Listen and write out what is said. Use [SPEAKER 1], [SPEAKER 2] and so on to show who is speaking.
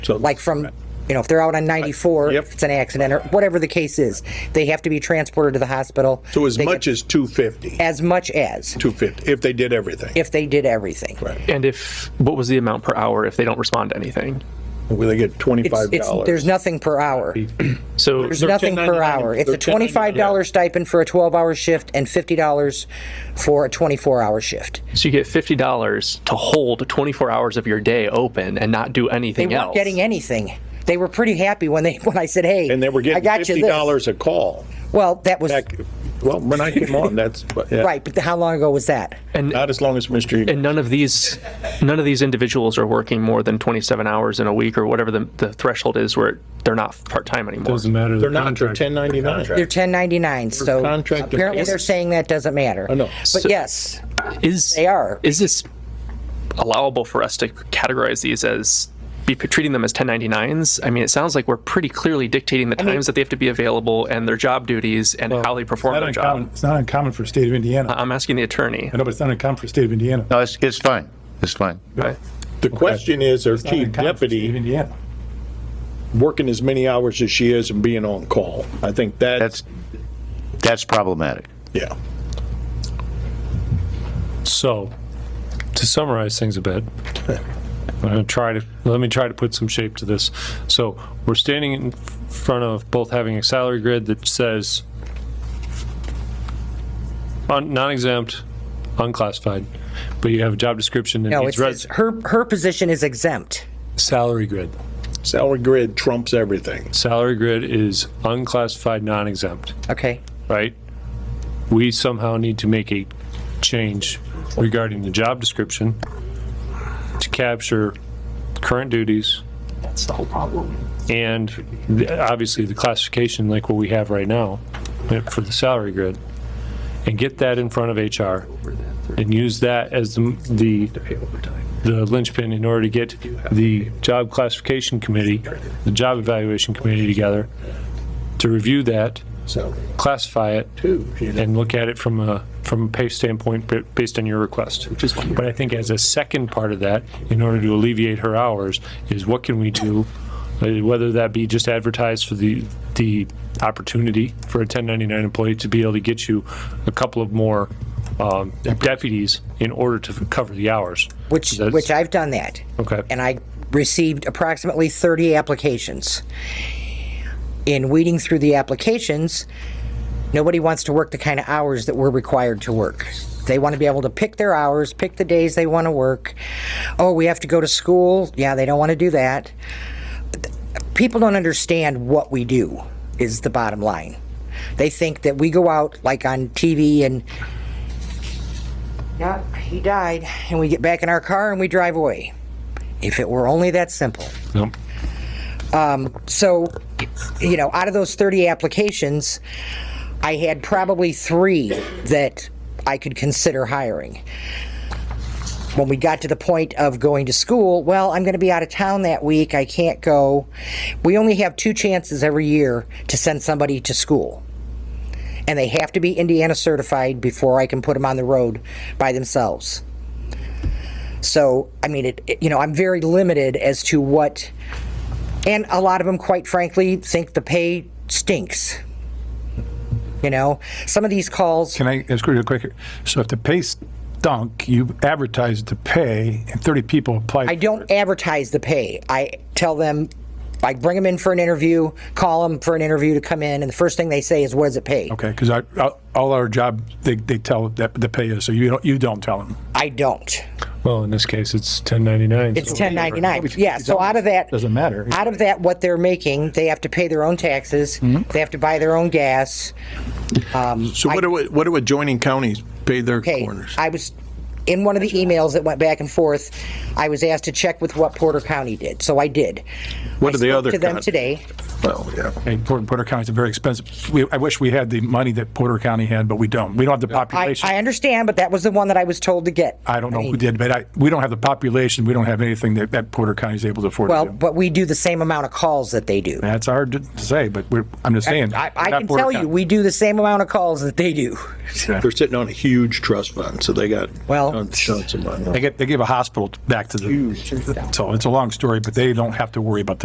[SPEAKER 1] So-
[SPEAKER 2] like from, you know, if they're out on 94,
[SPEAKER 1] Yep.
[SPEAKER 2] if it's an accident or whatever the case is, they have to be transported to the hospital.
[SPEAKER 1] So as
[SPEAKER 2] They get-
[SPEAKER 1] much as 250,
[SPEAKER 2] As much as,
[SPEAKER 1] 250, if they did everything.
[SPEAKER 2] if they did everything.
[SPEAKER 3] And if what was the amount per hour if they don't respond to anything?
[SPEAKER 1] Will they get
[SPEAKER 2] It's, it's, there's
[SPEAKER 1] $25?
[SPEAKER 2] nothing per hour.
[SPEAKER 3] So
[SPEAKER 2] There's nothing per
[SPEAKER 4] 10.99.
[SPEAKER 2] hour. It's a
[SPEAKER 4] They're 10.99.
[SPEAKER 2] twenty-five dollar stipend for a twelve-hour shift and fifty dollars for a twenty-four hour shift.
[SPEAKER 3] so you get fifty dollars to hold twenty four hours of your day open and not do
[SPEAKER 2] They
[SPEAKER 3] anything
[SPEAKER 2] weren't
[SPEAKER 3] else.
[SPEAKER 2] getting anything. They were pretty happy when they, when I said, hey.
[SPEAKER 1] And they were
[SPEAKER 2] I
[SPEAKER 1] getting
[SPEAKER 2] got you this."
[SPEAKER 1] $50 a call.
[SPEAKER 2] Well, that was,
[SPEAKER 1] Heck, Well, when I came on, that's, but, yeah.
[SPEAKER 2] right, but how long ago was that?
[SPEAKER 1] Not as long as Mr. Egan.
[SPEAKER 3] and none of these none of these individuals are working more than twenty seven hours in a week or whatever the, the threshold is where they're not part time anymore.
[SPEAKER 5] Doesn't matter.
[SPEAKER 1] They're not, they're 1099.
[SPEAKER 2] They're ten ninety-nine, so
[SPEAKER 1] contract-
[SPEAKER 2] apparently they're saying that doesn't matter.
[SPEAKER 1] I know.
[SPEAKER 2] But yes,
[SPEAKER 3] Is
[SPEAKER 2] they are.
[SPEAKER 3] is this allowable for us to categorize these as be treating them as 1099s? I mean, it sounds like we're pretty clearly dictating the times that they have to be available and their job duties and how they perform
[SPEAKER 5] Not
[SPEAKER 3] their
[SPEAKER 5] uncommon,
[SPEAKER 3] job.
[SPEAKER 5] it's not uncommon for the state of
[SPEAKER 2] Uh-huh.
[SPEAKER 5] Indiana.
[SPEAKER 3] I'm asking the attorney.
[SPEAKER 5] I know, but it's not uncommon for the state of Indiana.
[SPEAKER 2] Uh,
[SPEAKER 6] No, it's, it's fine. It's fine.
[SPEAKER 3] Okay.
[SPEAKER 1] The question is, our
[SPEAKER 5] It's not
[SPEAKER 1] chief
[SPEAKER 5] uncommon for the state of
[SPEAKER 1] deputy
[SPEAKER 5] Indiana.
[SPEAKER 1] working as many hours as she is and being on call? I think that's,
[SPEAKER 6] That's, that's problematic.
[SPEAKER 1] yeah.
[SPEAKER 7] So, to summarize things a bit, I'm gonna try to, let me try to put some shape to this. So, we're standing in front of both having a salary grid that says un- non-exempt, unclassified, but you have a job description that
[SPEAKER 2] No, it
[SPEAKER 7] needs
[SPEAKER 2] says
[SPEAKER 7] res-
[SPEAKER 2] her, her position is exempt.
[SPEAKER 7] salary grid.
[SPEAKER 1] Salary grid trumps everything.
[SPEAKER 7] Salary grid is unclassified, non-exempt.
[SPEAKER 2] Okay,
[SPEAKER 7] right? We somehow need to make a change regarding the job description to capture current duties. That's the whole problem. And the- obviously, the classification, like what we have right now uh, for the salary grid, and get that in front of HR and use that as the, the the linchpin in order to get the job classification committee, the job evaluation committee together to review that
[SPEAKER 1] So,
[SPEAKER 7] classify it and look at it from a, from a pay standpoint ba- based on your request. But I think as a second part of that, in order to alleviate her hours, is what can we do? uh, Whether that be just advertise for the, the opportunity for a 1099 employee to be able to get you a couple of more um, deputies in order to cover the hours.
[SPEAKER 2] which,
[SPEAKER 7] That's-
[SPEAKER 2] which I've done that.
[SPEAKER 7] Okay.
[SPEAKER 2] and I received approximately 30 applications. In weeding through the applications, nobody wants to work the kind of hours that we're required to work. They want to be able to pick their hours, pick the days they want to work. Oh, we have to go to school. Yeah, they don't want to do that. People don't understand what we do, is the bottom line. They think that we go out like on TV and, yeah, he died, and we get back in our car and we drive away. If it were only that simple.
[SPEAKER 7] Nope.
[SPEAKER 2] So, you know, out of those 30 applications, I had probably three that I could consider hiring. When we got to the point of going to school, well, I'm going to be out of town that week. I can't go. We only have two chances every year to send somebody to school. And they have to be Indiana certified before I can put them on the road by themselves. So, I mean, it, it- you know, I'm very limited as to what. And a lot of them, quite frankly, think the pay stinks. You know, some of these calls,
[SPEAKER 5] Can I ask you real quick? here? So if the pay stunk, you advertised the pay and 30 people applied.
[SPEAKER 2] I don't advertise the pay. I tell them, I bring them in for an interview, call them for an interview to come in, and the first thing they say is, what does it pay?
[SPEAKER 5] Okay, because I, I- all our job, they, they tell that the pay is, so you don't, you don't tell them.
[SPEAKER 2] I don't.
[SPEAKER 7] Well, in this case, it's 1099.
[SPEAKER 2] It's 1099. Yeah, so out of that.
[SPEAKER 5] Doesn't matter.
[SPEAKER 2] Out of that, what they're making, they have to pay their own taxes, they have to buy their own gas.
[SPEAKER 1] so what do, what do adjoining counties pay their
[SPEAKER 2] Okay,
[SPEAKER 1] corners?
[SPEAKER 2] I was, in one of the emails that went back and forth, I was asked to check with what Porter County did, so I did.
[SPEAKER 1] What
[SPEAKER 2] I
[SPEAKER 1] are the
[SPEAKER 2] spoke
[SPEAKER 1] other
[SPEAKER 2] To them
[SPEAKER 1] counties?
[SPEAKER 2] today.
[SPEAKER 1] Well, yeah.
[SPEAKER 5] And Porter, Porter County's a very expensive, we, I wish we had the money that Porter County had, but we don't. We don't have the
[SPEAKER 2] I,
[SPEAKER 5] population.
[SPEAKER 2] I understand, but that was the one that I was told to get.
[SPEAKER 5] I don't know who did, but I, we don't have the population, we don't have anything that, that Porter County's able to afford
[SPEAKER 2] Well,
[SPEAKER 5] to do.
[SPEAKER 2] but we do the same amount of calls that they do.
[SPEAKER 5] That's hard to say, but we're, I'm just saying.
[SPEAKER 2] I,
[SPEAKER 5] we're
[SPEAKER 2] I
[SPEAKER 5] not
[SPEAKER 2] can
[SPEAKER 5] Porter
[SPEAKER 2] tell you,
[SPEAKER 5] County.
[SPEAKER 2] we do the same amount of calls that they do.
[SPEAKER 1] They're sitting on a huge trust fund, so they got
[SPEAKER 2] Well, Well,
[SPEAKER 1] Shots in my mouth.
[SPEAKER 5] They get, they give a hospital back to the, so it's a long story, but they don't have to worry about the